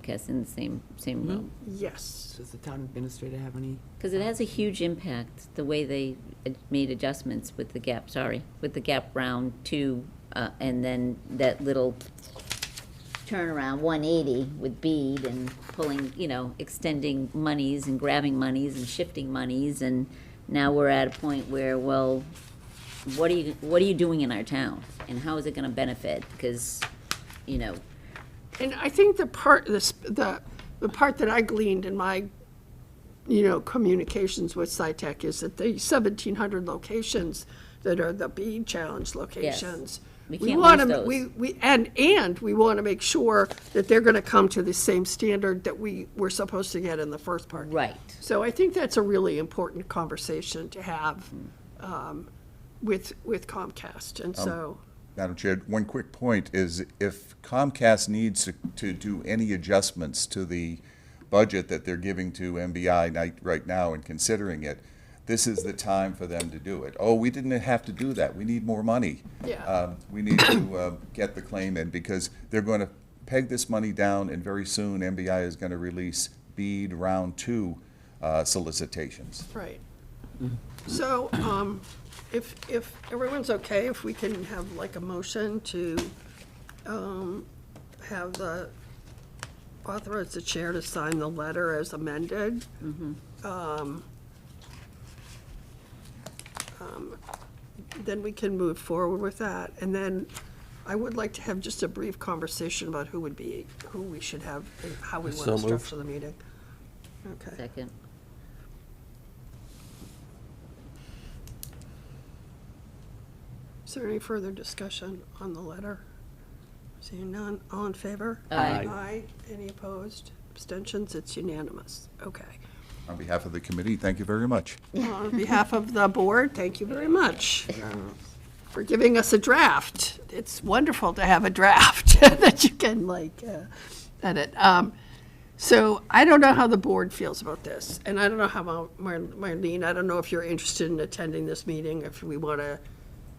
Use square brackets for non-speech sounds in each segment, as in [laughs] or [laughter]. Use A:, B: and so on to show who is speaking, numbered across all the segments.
A: Comcast in the same, same room.
B: Yes. Does the town administrator have any?
A: Because it has a huge impact, the way they ad- made adjustments with the gap, sorry, with the gap round two, uh, and then that little turnaround, one eighty with bead and pulling, you know, extending monies and grabbing monies and shifting monies, and now we're at a point where, well, what are you, what are you doing in our town? And how is it gonna benefit? Because, you know,
C: And I think the part, the, sp- the, the part that I gleaned in my, you know, communications with SciTech is that the seventeen hundred locations that are the bead challenge locations.
A: We
C: we
A: can't
C: want
A: lose
C: to
A: those.
C: We, we, and, and we want to make sure that they're going to come to the same standard that we were supposed to get in the first part.
A: right,
C: So I think that's a really important conversation to have, um, with, with Comcast, and so.
D: Madam Chair, one quick point is if Comcast needs to- to do any adjustments to the budget that they're giving to MBI night, right now and considering it, this is the time for them to do it. Oh, we didn't have to do that. We need more money.
C: Yeah.
D: Um, We need to uh, get the claim in because they're going to peg this money down and very soon MBI is going to release BEAD Round Two uh, solicitations.
C: Right. So, um, if, if everyone's okay, if we can have like a motion to, um, have the, authorize the chair to sign the letter as amended. Um, um, Then we can move forward with that. And then I would like to have just a brief conversation about who would be, who we should have, and how we want
E: So
C: to
E: moved.
C: structure the meeting. Okay.
A: second.
C: Is there any further discussion on the letter? Seeing none, all in favor?
A: Aye.
C: Aye, any opposed? Abstentions, it's unanimous, okay.
D: On behalf of the committee, thank you very much.
C: On behalf of the board, thank you very much uh, for giving us a draft. It's wonderful to have a draft [laughs] that you can like uh, edit. Um, So I don't know how the board feels about this, and I don't know how, Mar- Mar- Marlene, I don't know if you're interested in attending this meeting, if we want to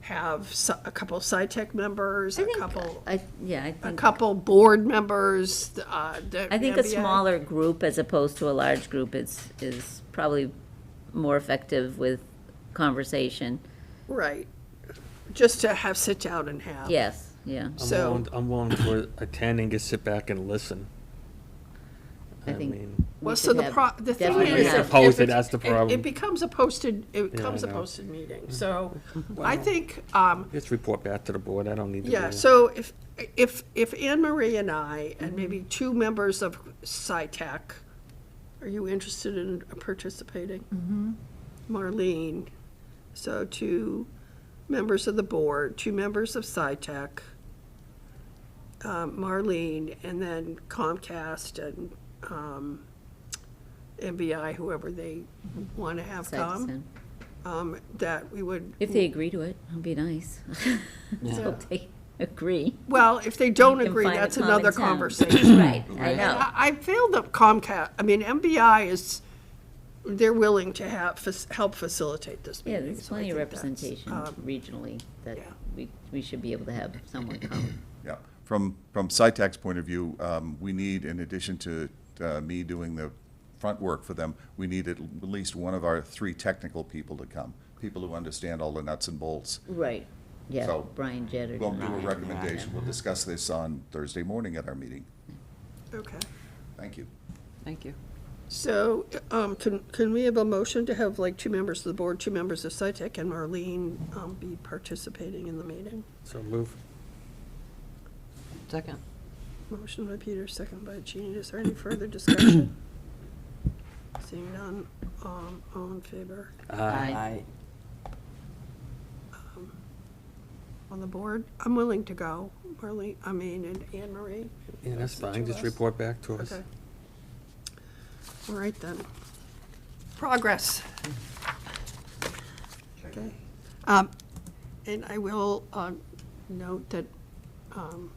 C: have so- a couple SciTech members,
A: I
C: a
A: think-
C: couple,
A: I, yeah, I
C: a
A: think.
C: couple board members. uh, the
A: I think a
C: MBA.
A: smaller group as opposed to a large group is, is probably more effective with conversation.
C: Right, just to have, sit down and have.
A: Yes, yeah,
E: I'm
C: So-
E: willing, I'm willing to attend and just sit back and listen.
A: I think-
E: mean,
C: Well,
A: We
C: so
A: should
C: the
A: have-
C: pro, the thing
A: definitely
C: is.
A: have-
C: if- if
E: Opposed it,
C: it's-
E: that's the
C: it- It
E: problem.
C: becomes a posted, it becomes a
E: know. Mm-hmm.
C: posted meeting,
E: [laughs]
C: so I think, um,
E: just report back to the board. I don't need to. be
C: yeah,
E: there.
C: so if, if, if Anne Marie and I, and maybe two members of SciTech, are you interested in participating? Marlene, so two members of the board, two members of SciTech, um, Marlene, and then Comcast and um, MBI, whoever they want to have
A: side to
C: come,
A: side.
C: um, that we would,
A: If they agree to it, it'd be nice. [laughs] Just hope they agree.
C: well, if they don't
A: Can
C: agree,
A: find a
C: that's
A: common
C: another
A: town. [coughs]
C: conversation. [coughs]
A: Right, I know.
C: I I feel that Comcast, I mean, MBI is, they're willing to have, fac- help facilitate this
A: Yeah,
C: meeting.
A: there's
C: so I
A: plenty of
C: think that's,
A: representation
C: um,
A: regionally that
C: yeah.
A: we, we should be able to have someone come.
D: Yeah, from, from SciTech's point of view, um, we need, in addition to uh, me doing the front work for them, we need at least one of our three technical people to come, people who understand all the nuts and bolts.
A: Right, yeah,
D: So,
A: Brian Jett or.
D: We'll do a
A: Brian, yeah.
D: recommendation, we'll discuss this on Thursday morning at our meeting.
C: Okay,
D: Thank you.
B: Thank you.
C: so, um, can, can we have a motion to have like two members of the board, two members of SciTech, and Marlene, um, be participating in the meeting?
E: So move.
B: Second.
C: Motion by Peter, second by Jean, is there any further
A: [coughs]
C: discussion? Seeing none, um, all in favor,
E: Uh,
B: Aye.
C: on the board, I'm willing to go, Marlene, I mean, and Anne Marie.
E: Yeah, that's
C: That's the
E: fine.
C: two
E: Just
C: of us.
E: report back to us.
C: Okay. All right then. Progress. Okay. Um, And I will um, note that um,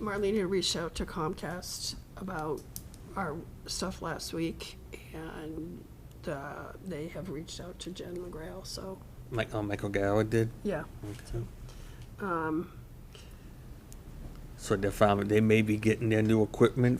C: Marlena reached out to Comcast about our stuff last week, and uh, they have reached out to Jen McGrail, so,
E: Like, oh, Michael Gower did.
C: yeah.
E: Okay.
C: Um,
E: So they're farming, they may be getting their new equipment